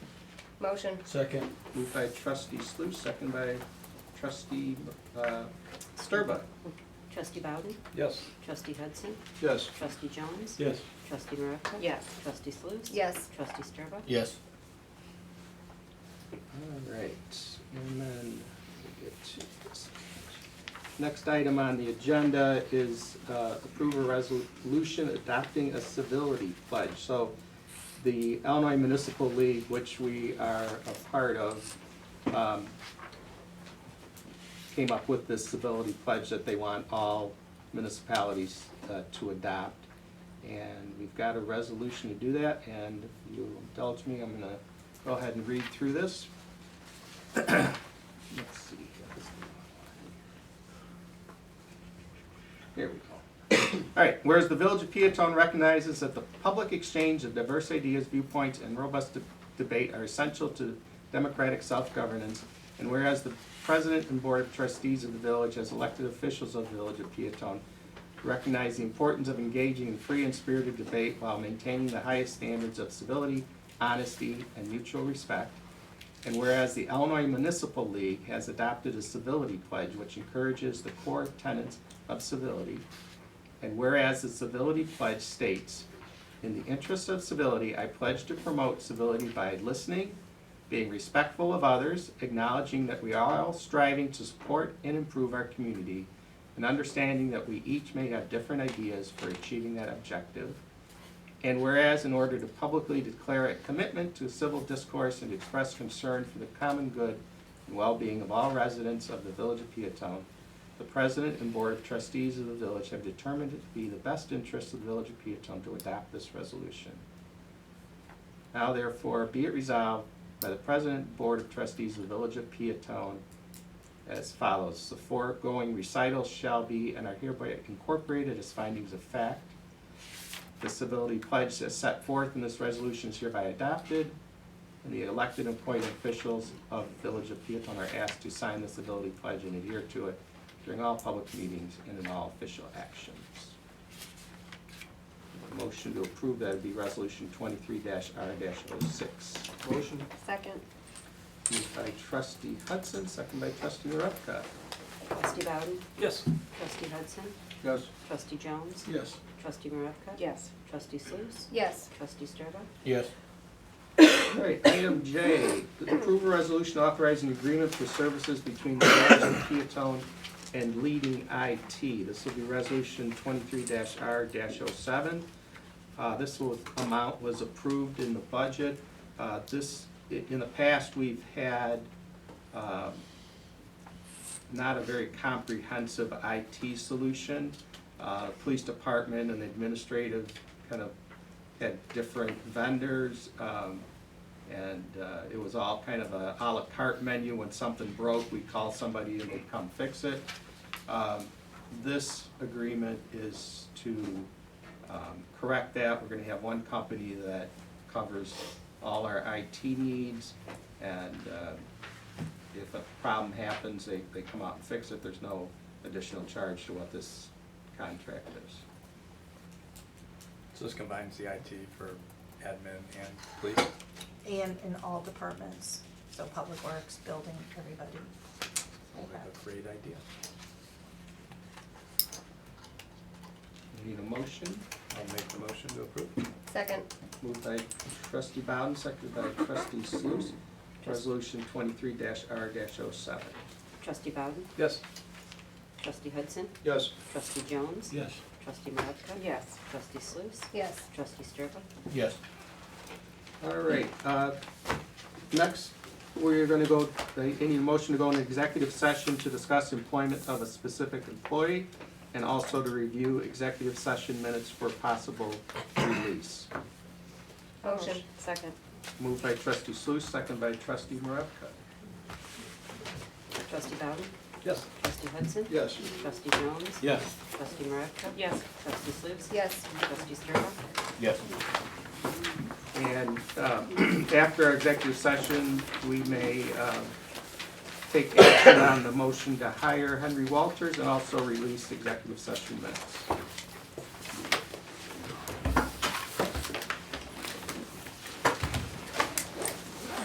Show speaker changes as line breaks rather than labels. Motion.
Second.
Moved by trustee Sluse, second by trustee uh, Sturba.
Trustee Bowden?
Yes.
Trustee Hudson?
Yes.
Trustee Jones?
Yes.
Trustee Maravka?
Yes.
Trustee Sluse?
Yes.
Trustee Sturba?
Yes.
All right, and then we get to this. Next item on the agenda is uh, approve a resolution adopting a civility pledge. So the Illinois Municipal League, which we are a part of, um, came up with this civility pledge that they want all municipalities uh, to adopt. And we've got a resolution to do that, and if you indulge me, I'm gonna go ahead and read through this. Let's see. Here we go. All right, whereas the Village of Peatone recognizes that the public exchange of diverse ideas, viewpoints, and robust de- debate are essential to democratic self-governance, and whereas the President and Board of Trustees of the Village, as elected officials of the Village of Peatone, recognize the importance of engaging in free and spirited debate while maintaining the highest standards of civility, honesty, and mutual respect, and whereas the Illinois Municipal League has adopted a civility pledge which encourages the core tenets of civility. And whereas the civility pledge states, in the interest of civility, I pledge to promote civility by listening, being respectful of others, acknowledging that we are all striving to support and improve our community, and understanding that we each may have different ideas for achieving that objective. And whereas in order to publicly declare a commitment to civil discourse and express concern for the common good and well-being of all residents of the Village of Peatone, the President and Board of Trustees of the Village have determined it to be the best interest of the Village of Peatone to adopt this resolution. Now therefore be it resolved by the President and Board of Trustees of the Village of Peatone as follows. The foregoing recitals shall be and are hereby incorporated as findings of fact. The civility pledge as set forth in this resolution is hereby adopted, and the elected and appointed officials of the Village of Peatone are asked to sign the civility pledge and adhere to it during all public meetings and in all official actions. Motion to approve that would be Resolution twenty-three R 6
Motion?
Second.
Moved by trustee Hudson, second by trustee Maravka.
Trustee Bowden?
Yes.
Trustee Hudson?
Yes.
Trustee Jones?
Yes.
Trustee Maravka?
Yes.
Trustee Sluse?
Yes.
Trustee Sturba?
Yes.
All right, item J, approve a resolution authorizing agreement for services between the village of Peatone and leading IT. This will be resolution twenty-three R 7 Uh, this was, amount was approved in the budget. Uh, this, i- in the past, we've had, um, not a very comprehensive IT solution. Uh, police department and administrative kind of had different vendors, um, and, uh, it was all kind of a à la carte menu, when something broke, we'd call somebody and they'd come fix it. Um, this agreement is to, um, correct that, we're gonna have one company that covers all our IT needs, and, uh, if a problem happens, they, they come out and fix it, there's no additional charge to what this contract is.
So this combines the IT for admin and police?
And in all departments, so public works, building, everybody.
Sounds like a great idea.
Need a motion?
I'll make the motion to approve.
Second.
Moved by trustee Bowden, seconded by trustee Sluse. Resolution twenty-three R oh 7
Trustee Bowden?
Yes.
Trustee Hudson?
Yes.
Trustee Jones?
Yes.
Trustee Maravka?
Yes.
Trustee Sluse?
Yes.
Trustee Sturba?
Yes.
All right, uh, next, we're gonna go, I need a motion to go into executive session to discuss employment of a specific employee and also to review executive session minutes for possible release.
Motion. Second.
Moved by trustee Sluse, seconded by trustee Maravka.
Trustee Bowden?
Yes.
Trustee Hudson?
Yes.
Trustee Jones?
Yes.
Trustee Maravka?
Yes.
Trustee Sluse?
Yes.
Trustee Sturba?
Yes.
And um, after our executive session, we may um, take action on the motion to hire Henry Walters and also release executive session minutes.